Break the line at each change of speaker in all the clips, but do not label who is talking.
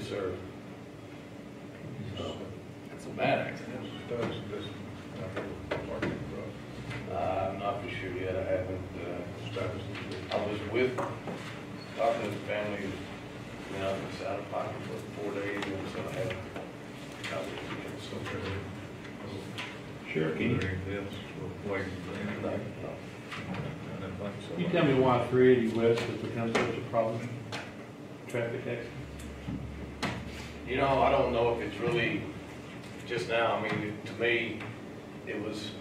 serve. So,
That's a bad accident.
does this, uh, work, uh,
I'm not for sure yet, I haven't, uh,
established this?
I was with, talking to the family, you know, I was out of pocket for four days, and so I haven't. I was,
So, uh,
Sheriff, can you,
Anything else? We're waiting for
you
anything.
know,
I don't think so.
you tell me why three eighty west has become such a problem? Traffic accident?
You know, I don't know if it's really, just now, I mean, to me, it was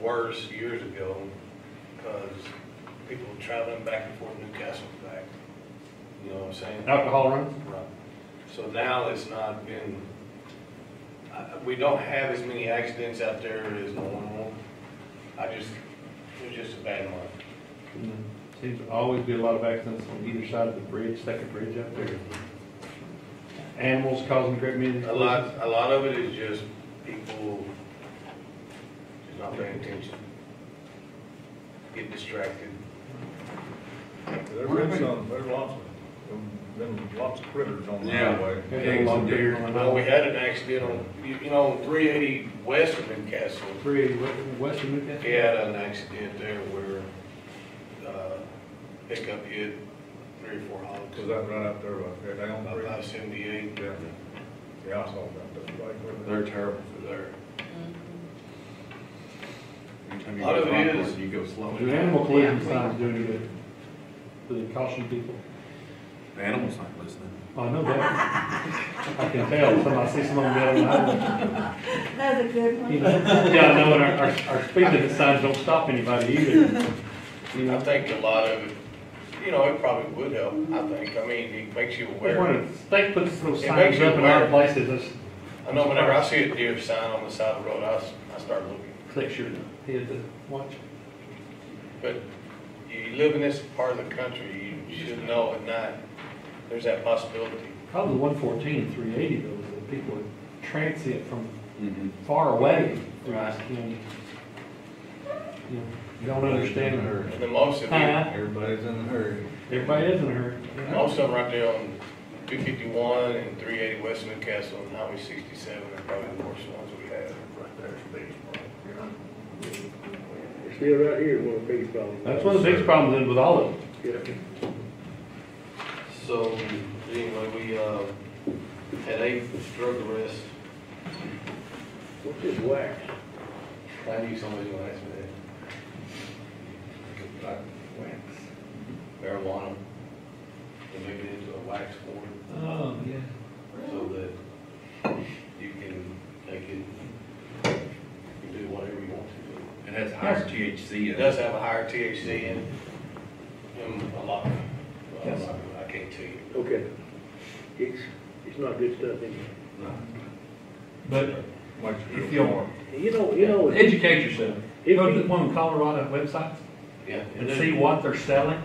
worse years ago, because people were traveling back and forth Newcastle and back, you know what I'm saying?
Alcohol runs?
Right. So now it's not been, I- we don't have as many accidents out there as normal. I just, it was just a bad month. Mm-hmm.
Seems to always be a lot of accidents on either side of the bridge, second bridge up there. Animals causing great many.
A lot, a lot of it is just people just not paying attention. Get distracted.
There's been some, there's lots of, been lots of critters on the
Yeah.
highway.
Pigs and deer on the
Well, we
highway.
had an accident on, you you know, three eighty west of Newcastle.
Three eighty western Newcastle?
We had an accident there where, uh, pickup hit three or four
Was
hogs.
that right out there, uh, right there, down
About
three?
five seventy-eight
Yeah, yeah, I saw that, that's right where they-
They're terrible.
there.
Anytime you
Lot
go
of it
Concord,
is-
You go slow.
Do animal collision signs do any good? Do they caution people?
The animal's not listening.
I know that. Oh, I can tell, somebody sees someone dead on the highway.
That's a good
You
one.
know, Yeah, I know, and our, our- our speed limit signs don't stop anybody either. You
I
know,
think a lot of it, you know, it probably would help, I think. I mean, it makes you aware.
when the state puts those
It
signs
makes you
up in our
aware.
places, it's
I know whenever I see a deer sign on the side of the road, I, s- I start looking.
click your head to watch.
But you live in this part of the country, you should know at night, there's that possibility.
Probably one fourteen and three eighty though, is that people are transient from far away. through this county. You know, you Don't understand her.
And the most of them,
Huh?
Everybody's in a hurry.
Everybody is in a hurry.
most of them right there on two fifty-one and three eighty West Newcastle and Highway sixty-seven are probably the worst ones we have.
Right there's the biggest problem.
Still right here, one of the biggest problems.
That's one of the biggest problems with all of them.
Yeah.
So, anyway, we, uh, had eight drug arrests.
What's this wax?
I knew somebody would ask me that. Marijuana, they make it into a wax form.
Oh, yeah.
so that you can take it, you can do whatever you want to
It has higher THC
do. It
in it.
does have a higher THC in, in a lot, well, I'm not- I can't tell you.
Okay. It's, it's not good stuff in
But
Like
If
real
you-
hard.
there. You know, you know, if
educate yourself.
If
Go to
you-
the one of Colorado websites
Yeah.
and see what they're selling.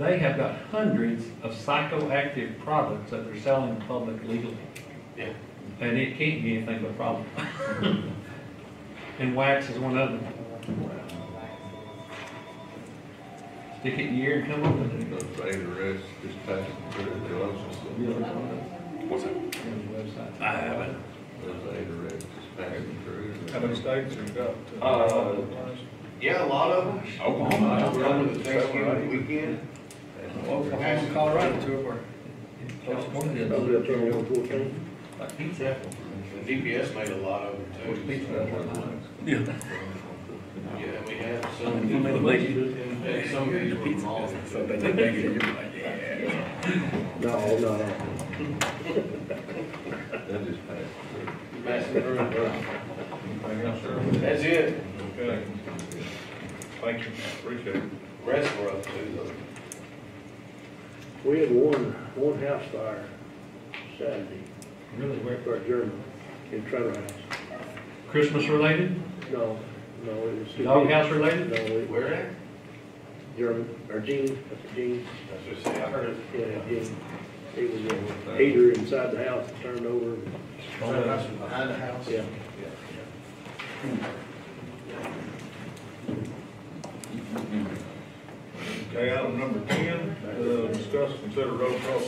They have got hundreds of psychoactive products that they're selling in public legally.
Yeah.
And it can't be anything but a problem. And wax is one of them. Stick it in your ear and come up with it.
Those eight arrests just passed through the
You
Columbus.
know, it's one of
What's that?
them websites.
I haven't.
Those eight arrests just passed through. How many states have got?
Uh, Yeah, a lot of them.
Oklahoma, I don't
Over the Thanksgiving weekend. Oklahoma, Colorado, two of our.
California does
probably
it.
up there on one fourteen.
Like pizza.
The DPS made a lot of them too.
Yeah.
Yeah, and we had some,
You made a lady.
and some of these were malls.
So they they make it, you're like, yeah.
No, no, no.
That just passed through.
Massive room.
Anything else, sir?
That's it.
Okay. Thank you, appreciate it.
Rest were up too though.
We had one, one house fire Saturday,
Really
right
weird.
by German, in Trevor House.
Christmas related,
No, no, it was.
doghouse
No,
related?
it was
Where at?
German, or Gene, that's the Gene,
That's what I said, I heard it.
yeah, Gene. It was a heater inside the house, that turned over, Oh,
Behind the house?
yeah.
Okay, item number ten, uh, discuss, consider road crossing